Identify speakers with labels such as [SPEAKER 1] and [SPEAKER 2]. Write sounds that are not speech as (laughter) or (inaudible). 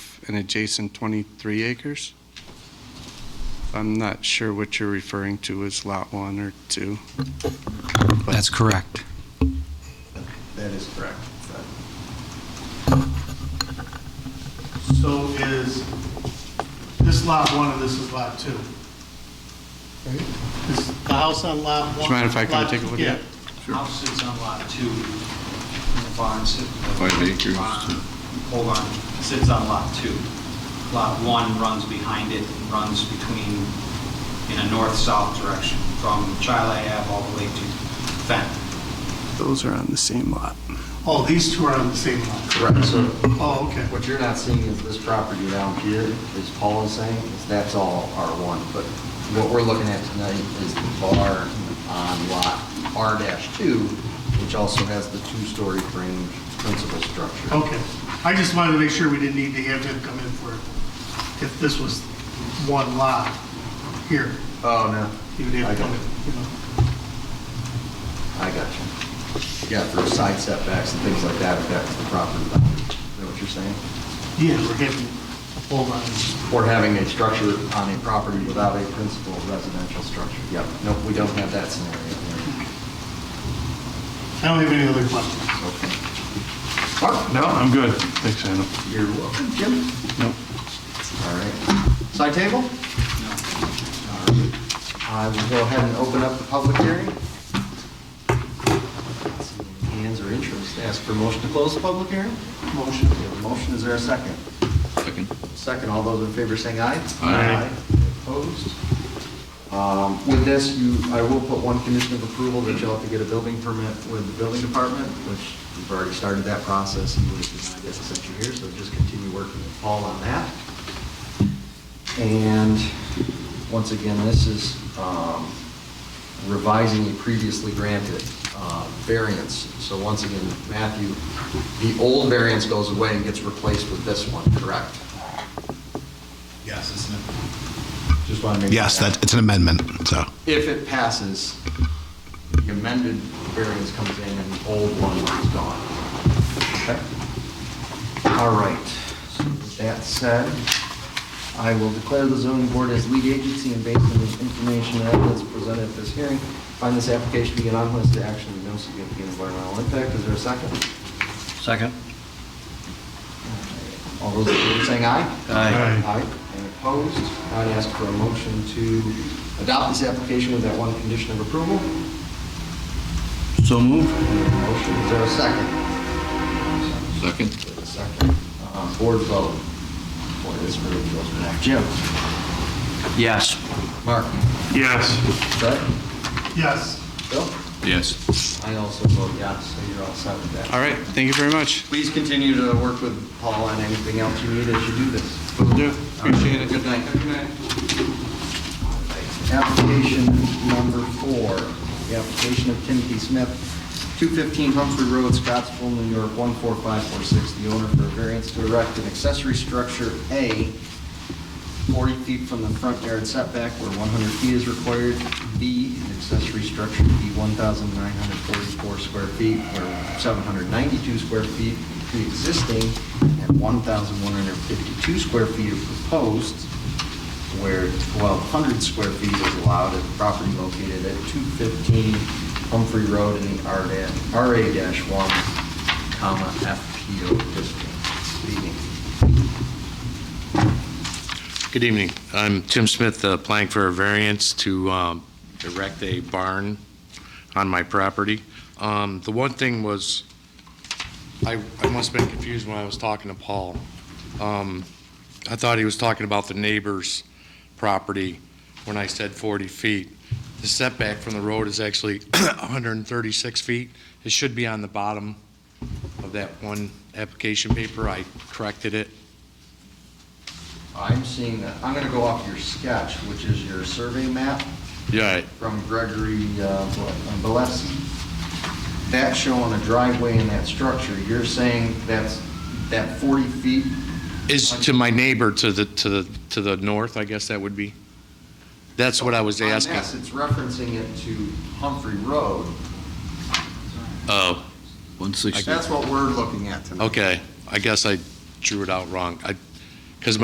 [SPEAKER 1] an adjacent 23 acres. I'm not sure what you're referring to as Lot 1 or 2.
[SPEAKER 2] That's correct.
[SPEAKER 3] That is correct. So is this lot one and this is lot two? Is the house on lot one?
[SPEAKER 1] Do you mind if I come take a look at it?
[SPEAKER 3] Yeah.
[SPEAKER 4] House sits on lot two, and the barn sits.
[SPEAKER 1] Oh,
[SPEAKER 5] Five acres.
[SPEAKER 4] Hold on, sits on lot two. Lot one runs behind it, and runs between, in a north-south direction, from Chile Ave all the way to Fenton.
[SPEAKER 1] Those are on the same lot.
[SPEAKER 3] Oh, these two are on the same lot.
[SPEAKER 6] Correct, so
[SPEAKER 3] Oh, okay.
[SPEAKER 6] what you're not seeing is this property down here, as Paul is saying, is that's all R1, but what we're looking at tonight is the barn on lot R-2, which also has the two-story frame principal structure.
[SPEAKER 3] Okay. I just wanted to make sure we didn't need to have him come in for, it. if this was one lot here,
[SPEAKER 6] Oh,
[SPEAKER 3] he would have to come in, you know?
[SPEAKER 6] I got you. Yeah, for side setbacks and things like that, if that's the property boundary, is that what you're saying?
[SPEAKER 3] Yeah, we're having a whole lot of
[SPEAKER 6] Or having a structure on a property without a principal residential structure. Yep, nope, we don't have that scenario.
[SPEAKER 3] I don't have any other questions.
[SPEAKER 6] Okay.
[SPEAKER 7] No, I'm good. Thanks, Adam.
[SPEAKER 6] You're welcome, Jim.
[SPEAKER 7] Nope.
[SPEAKER 6] All right. Side table? No. I will go ahead and open up the public hearing. Not seeing any Hands or interest, ask for motion to close the public hearing? Motion. We have a motion, is there a second?
[SPEAKER 5] Second.
[SPEAKER 6] Second, all those in favor saying aye?
[SPEAKER 5] Aye.
[SPEAKER 6] Opposed? Um, With this, you, I will put one condition of approval that you'll have to get a building permit with the building department, which we've already started that process, and we've denied it since you're here, so just continue working with Paul on that. And, once again, this is um, revising a previously granted uh, variance. So once again, Matthew, the old variance goes away and gets replaced with this one, correct?
[SPEAKER 4] Yes, isn't it?
[SPEAKER 6] Just want to make.
[SPEAKER 8] Yes, that, it's an amendment, so.
[SPEAKER 6] If it passes, the amended variance comes in and the old one is gone. Okay. All right. So with That said, I will declare the zoning board as lead agency and based on the information and evidence presented at this hearing, find this application to be an unlisted action with no significant environmental impact. Is there a second?
[SPEAKER 2] Second.
[SPEAKER 6] All those in favor saying aye?
[SPEAKER 2] Aye.
[SPEAKER 6] Aye. Any opposed? I'd ask for a motion to adopt this application with that one condition of approval.
[SPEAKER 2] So moved.
[SPEAKER 6] Motion, is there a second?
[SPEAKER 5] Second.
[SPEAKER 6] There's a second. Uh, Board vote. Boy, this really goes back. Jim?
[SPEAKER 2] Yes.
[SPEAKER 6] Mark?
[SPEAKER 7] Yes.
[SPEAKER 6] Brett?
[SPEAKER 3] Yes.
[SPEAKER 6] Bill?
[SPEAKER 5] Yes.
[SPEAKER 6] I also vote yes, so you're all set with that.
[SPEAKER 1] All right, thank you very much.
[SPEAKER 6] Please continue to work with Paul on anything else you need as you do this.
[SPEAKER 1] Will do. Appreciate it.
[SPEAKER 6] Good night. Good night. Application number four, the application of Timothy Smith, 215 Humphrey Road, Scottsville, New York, 14546, the owner for a variance to erect an accessory structure A, 40 feet from the front yard setback where 100 feet is required, B, an accessory structure to be 1,944 square feet where 792 square feet pre-existing and 1,152 square feet are proposed where 1,200 square feet is allowed at the property located at 215 Humphrey Road in the R da- RA-1, comma, FPO district. Speaking.
[SPEAKER 9] Good evening. I'm Tim Smith, uh, applying for a variance to um, erect a barn on my property. Um, The one thing was, I I must have been confused when I was talking to Paul. Um, I thought he was talking about the neighbor's property when I said 40 feet. The setback from the road is actually (clears throat) 136 feet. It should be on the bottom of that one application paper. I corrected it.
[SPEAKER 6] I'm seeing that, I'm going to go off your sketch, which is your survey map
[SPEAKER 9] Yeah.
[SPEAKER 6] from Gregory uh, what, Valesi. That's showing a driveway in that structure. You're saying that's, that 40 feet
[SPEAKER 9] Is to my neighbor to the, to the, to the north, I guess that would be? That's what I was
[SPEAKER 6] On this,
[SPEAKER 9] asking.
[SPEAKER 6] it's referencing it to Humphrey Road.
[SPEAKER 9] Oh,
[SPEAKER 5] One sixty.
[SPEAKER 6] That's what we're looking at tonight.
[SPEAKER 9] okay. I guess I drew it out wrong. I,